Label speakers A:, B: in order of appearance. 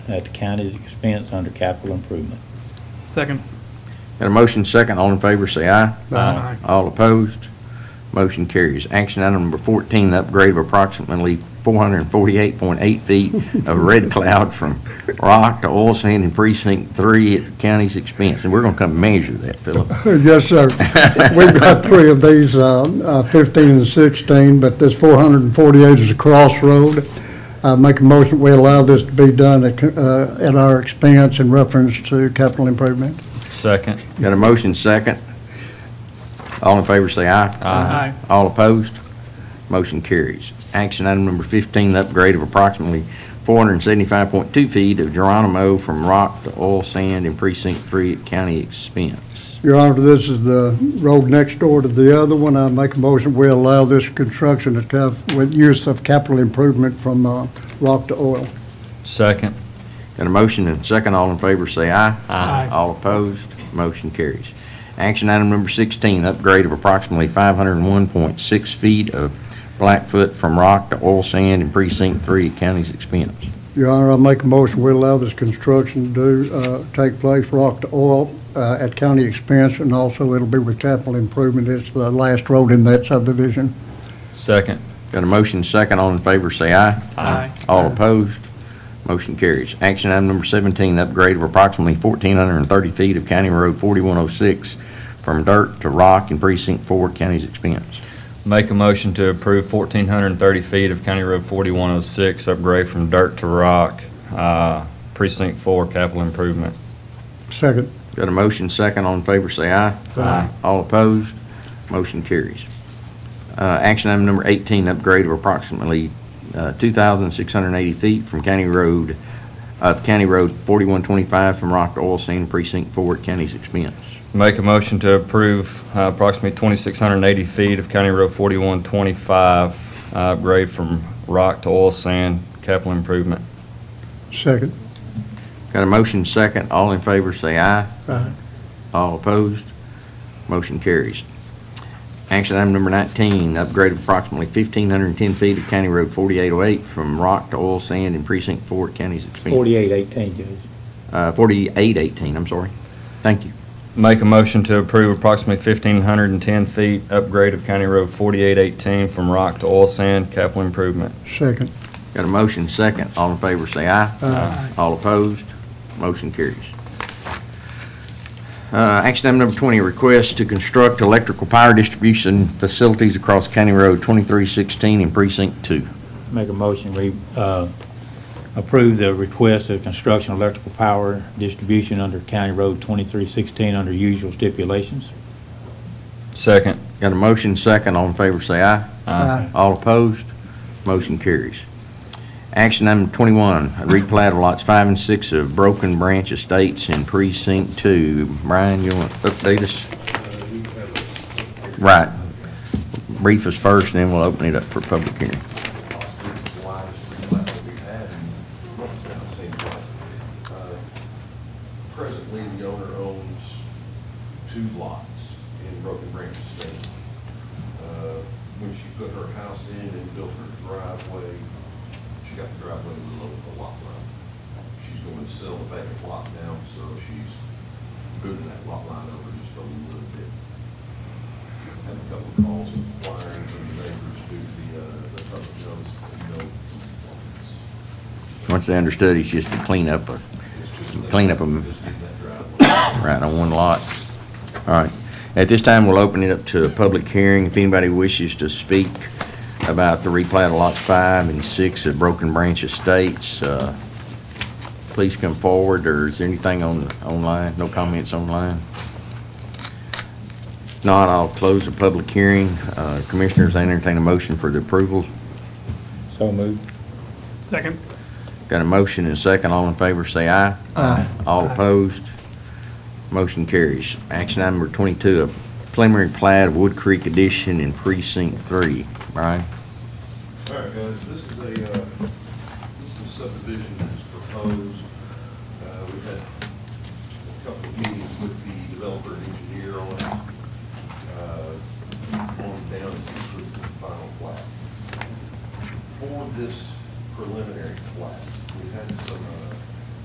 A: at the county's expense under capital improvement.
B: Second.
C: Got a motion second, all in favor say aye.
B: Aye.
C: All opposed, motion carries. Action item number 14, the upgrade of approximately 448.8 feet of red cloud from rock to oil sand in precinct 3 at the county's expense. And we're going to come measure that, Philip.
D: Yes, sir. We've got three of these, uh, uh, 15 and 16, but this 448 is a crossroad. I make a motion, we allow this to be done at uh, at our expense in reference to capital improvement.
E: Second.
C: Got a motion second. All in favor say aye.
B: Aye.
C: All opposed? Motion carries. Action item number 15, the upgrade of approximately 475.2 feet of Geronimo from rock to oil sand in precinct 3 at county expense.
D: Your Honor, this is the road next door to the other one. I make a motion, we allow this construction to have, with use of capital improvement from uh, rock to oil.
E: Second.
C: Got a motion and second, all in favor say aye.
B: Aye.
C: All opposed, motion carries. Action item number 16, upgrade of approximately 501.6 feet of Blackfoot from rock to oil sand in precinct 3 at county's expense.
D: Your Honor, I make a motion, we allow this construction to do, uh, take place, rock to oil, uh, at county expense, and also it'll be with capital improvement. It's the last road in that subdivision.
E: Second.
C: Got a motion second, all in favor say aye.
B: Aye.
C: All opposed? Motion carries. Action item number 17, the upgrade of approximately 1,430 feet of County Road 4106 from dirt to rock in Precinct 4, county's expense.
E: Make a motion to approve fourteen hundred and thirty feet of County Road forty-one oh six, upgrade from dirt to rock, uh, precinct four, capital improvement.
D: Second.
C: Got a motion second, all in favor say aye.
E: Aye.
C: All opposed? Motion carries. Uh, Action item number 18, upgrade of approximately uh, 2,680 feet from County Road, of County Road 4125 from rock to oil sand in Precinct 4, county's expense.
E: Make a motion to approve uh, approximately twenty-six hundred and eighty feet of County Road forty-one twenty-five, uh, upgrade from rock to oil sand, capital improvement.
D: Second.
C: Got a motion second, all in favor say aye.
D: Aye.
C: All opposed? Motion carries. Action item number 19, upgrade of approximately 1,510 feet of County Road 4808 from rock to oil sand in Precinct 4 at county's expense.
A: Forty-eight eighteen, Judge.
C: Uh, 4818, I'm sorry. Thank you.
E: Make a motion to approve approximately fifteen hundred and ten feet, upgrade of County Road forty-eight eighteen from rock to oil sand, capital improvement.
D: Second.
C: Got a motion second, all in favor say aye.
B: Aye.
C: All opposed, motion carries. Uh, Action item number 20, request to construct electrical power distribution facilities across County Road 2316 in Precinct 2.
A: Make a motion, we uh, approve the request of construction of electrical power distribution under County Road 2316 under usual stipulations.
E: Second.
C: Got a motion second, all in favor say aye. All opposed, motion carries. Action item 21, replat of lots 5 and 6 of Broken Branch Estates in Precinct 2. Brian, you want to update us? Right. Brief us first, then we'll open it up for public hearing.
F: Uh, Presently, the owner owns two lots in Broken Branch Estate. Uh, When she put her house in and built her driveway, she got the driveway below the lot line. She's going to sell the vacant lot now, so she's moving that lot line over just a little bit had a couple of calls inquiring from the neighbors due to the, uh, the public notice and no complaints.
C: Once they understood, it's just to clean up, a-
F: It's just that-
C: Clean up 'em.
F: Just in that driveway.
C: right, on one lot. All right. At this time, we'll open it up to a public hearing. If anybody wishes to speak about the replat of lots 5 and 6 of Broken Branch Estates, uh, please come forward, or is there anything on, online? No comments online? If Not, I'll close the public hearing. Uh, Commissioners, I entertain a motion for the approval.
A: So moved.
B: Second.
C: Got a motion and a second. All in favor, say aye.
D: Aye.
C: All opposed? Motion carries. Action item number 22, a preliminary plat of Wood Creek Edition in Precinct 3. Brian?
F: All right, guys, this is a, uh, this is a subdivision that's proposed. Uh, We've had a couple of meetings with the developer and engineer on it. Uh, On down to the final plat. For this uh,